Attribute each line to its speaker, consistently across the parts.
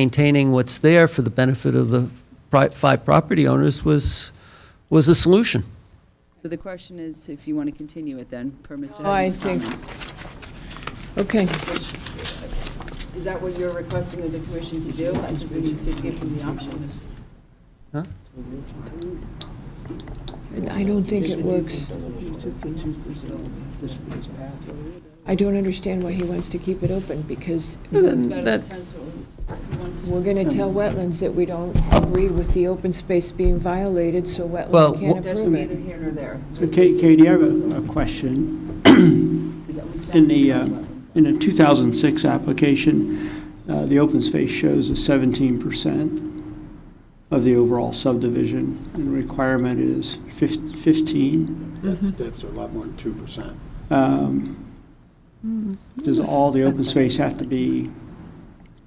Speaker 1: maintaining what's there for the benefit of the pri- five property owners was, was a solution.
Speaker 2: Mm-hmm.
Speaker 3: So the question is if you want to continue it then, per Mr.
Speaker 2: Oh, I
Speaker 3: Hedman's
Speaker 2: think-
Speaker 3: comments.
Speaker 2: Okay,
Speaker 3: Is that what you're requesting of the commission to do? I think we need to give them the option.
Speaker 1: Huh?
Speaker 2: I don't think it works. I don't understand why he wants to keep it open, because
Speaker 3: It's got to
Speaker 1: That-
Speaker 3: be ten stories. He wants to-
Speaker 2: we're going to tell wetlands that we don't agree with the open space being violated, so
Speaker 1: Well,
Speaker 2: wetlands
Speaker 1: wh-
Speaker 2: can't
Speaker 3: That's
Speaker 2: approve
Speaker 3: neither
Speaker 2: it.
Speaker 3: here nor there.
Speaker 4: So Ka- Katie, I have a- a question.
Speaker 3: Is that what's-
Speaker 4: E In the, uh, in a 2006 application, uh, the open space shows a 17% of the overall subdivision, and the requirement is fif- 15.
Speaker 5: That's, that's a lot more than two percent.
Speaker 4: Um, Does all the open space have to be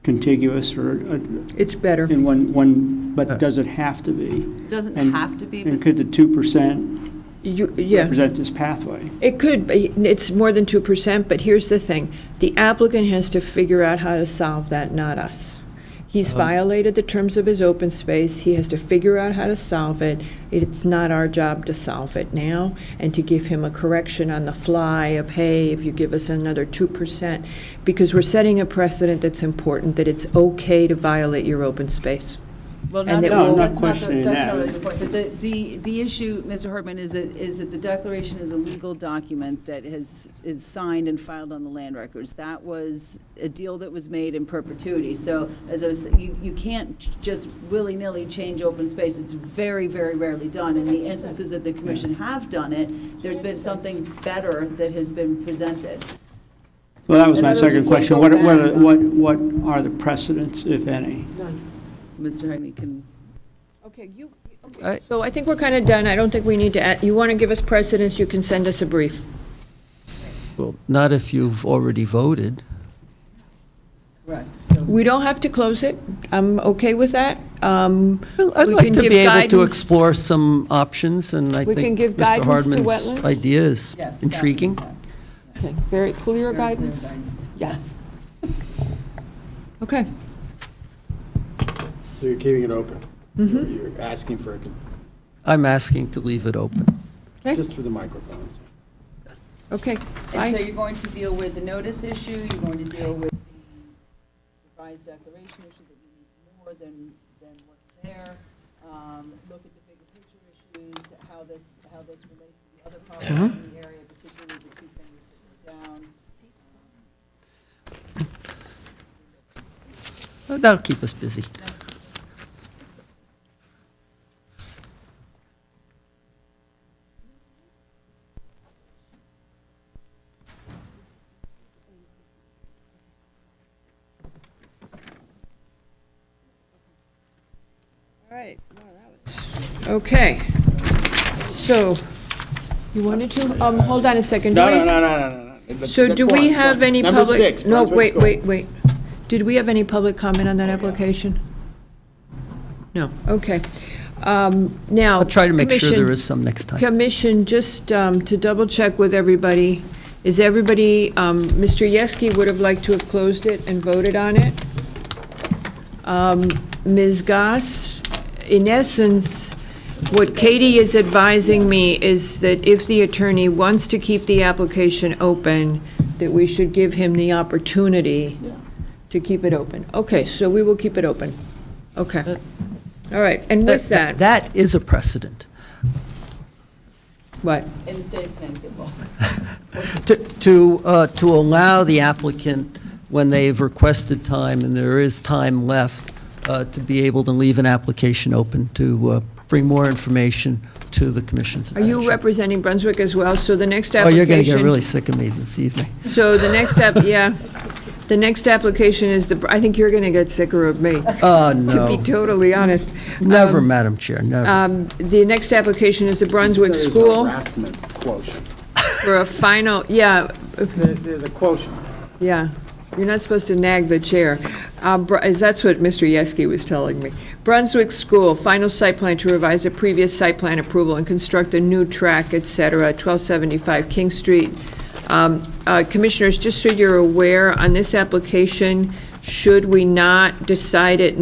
Speaker 4: contiguous or uh,
Speaker 2: It's better.
Speaker 4: in one, one? but does it have to be?
Speaker 3: Doesn't
Speaker 4: uh, and-
Speaker 3: have to be,
Speaker 4: And
Speaker 3: but
Speaker 4: could the 2%
Speaker 2: You, yeah.
Speaker 4: represent this pathway?
Speaker 2: It could, be it's more than 2%, but here's the thing. The applicant has to figure out how to solve that, not us. He's violated the terms of his open space, he has to figure out how to solve it. It's not our job to solve it now, and to give him a correction on the fly of, hey, if you give us another 2%, because we're setting a precedent that's important, that it's okay to violate your open space.
Speaker 3: Well,
Speaker 2: And
Speaker 3: not,
Speaker 2: it
Speaker 3: no,
Speaker 2: will-
Speaker 3: that's not, the-
Speaker 4: questioning
Speaker 3: that's
Speaker 4: that.
Speaker 3: not the question. The, the, the issue, Mr. Hartman, is that, is that the declaration is a legal document that has, is signed and filed on the land records. That was a deal that was made in perpetuity. So as I was, you, you can't just willy-nilly change open space. It's very, very rarely done. In the instances that the commission have done it, there's been something better that has been presented.
Speaker 4: Well, that was
Speaker 3: In
Speaker 4: my
Speaker 3: other words, you
Speaker 4: second
Speaker 3: can't
Speaker 4: question.
Speaker 3: go
Speaker 4: What, what,
Speaker 3: back.
Speaker 4: what what are the precedents, if any?
Speaker 3: Mr. Hartman can.
Speaker 2: Okay, you,
Speaker 1: I-
Speaker 2: so I think we're kind of done. I don't think we need to, add- you want to give us precedence, you can send us a brief.
Speaker 1: Well, not if you've already voted.
Speaker 3: Correct, so.
Speaker 2: We don't have to close it. I'm okay with that. Um,
Speaker 1: Well, I'd
Speaker 2: we
Speaker 1: like
Speaker 2: can
Speaker 1: to
Speaker 2: give
Speaker 1: be able to
Speaker 2: guidance-
Speaker 1: explore some options, and I
Speaker 2: We can
Speaker 1: think
Speaker 2: give
Speaker 1: Mr.
Speaker 2: guidance to
Speaker 1: Hardman's
Speaker 2: wetlands?
Speaker 1: idea is
Speaker 3: Yes, that-
Speaker 1: intriguing.
Speaker 2: Okay,
Speaker 3: Very
Speaker 2: Very clear
Speaker 3: clear
Speaker 2: guidance?
Speaker 3: guidance.
Speaker 2: Yeah. Okay.
Speaker 5: So you're keeping it open? Mm-hmm. You're asking for, a con-
Speaker 1: I'm asking to leave it open.
Speaker 5: just for the microphones.
Speaker 2: Okay.
Speaker 3: And so
Speaker 2: I-
Speaker 3: you're going to deal with the notice issue, you're going to deal with the revised declaration issue that you need more than, than what's there. Um, Look at the bigger picture issues, how this, how this relates to the other problems in the area, particularly the two things that were down.
Speaker 1: That'll keep us busy.
Speaker 2: Okay. So, you wanted to, um, hold on a second. Do we-
Speaker 5: no, no, no, no, no.
Speaker 2: So do we have any public?
Speaker 5: Number six.
Speaker 2: No,
Speaker 5: Brunswick
Speaker 2: wait,
Speaker 5: School.
Speaker 2: wait, wait. Did we have any public comment on that application? No, okay. Um, Now.
Speaker 1: I'll try to make sure
Speaker 2: Commission-
Speaker 1: there is some next time.
Speaker 2: Commission, just um, to double check with everybody, is everybody, um, Mr. Yeski would have liked to have closed it and voted on it. Um, Ms. Goss, in essence, what Katie is advising me is that if the attorney wants to keep the application open, that we should give him the opportunity to keep it open. Okay, so we will keep it open. Okay. All right, and with that,
Speaker 1: That is a precedent.
Speaker 2: what?
Speaker 3: In the state of Connecticut law.
Speaker 1: To- To, uh, to allow the applicant, when they've requested time, and there is time left, uh, to be able to leave an application open to uh, bring more information to the commission's
Speaker 2: Are you
Speaker 1: attention.
Speaker 2: representing Brunswick as well? So the next
Speaker 1: Oh,
Speaker 2: application.
Speaker 1: you're going to get really sick of me this evening.
Speaker 2: So the next app, yeah. The next application is the, I think you're going to get sicker of me,
Speaker 1: Oh,
Speaker 2: to be
Speaker 1: no.
Speaker 2: totally honest.
Speaker 1: Never, Madam Chair, never.
Speaker 2: Um, The next application is the Brunswick
Speaker 5: There's a
Speaker 2: School
Speaker 5: harassment quotient.
Speaker 2: for a final, yeah,
Speaker 5: There- There's a quotient.
Speaker 2: yeah. You're not supposed to nag the chair. Um, Br- is- That's what Mr. Yeski was telling me. Brunswick School, final site plan to revise a previous site plan approval and construct a new track, et cetera, 1275 King Street. Um, uh, Commissioners, just so you're aware, on this application, should we not decide it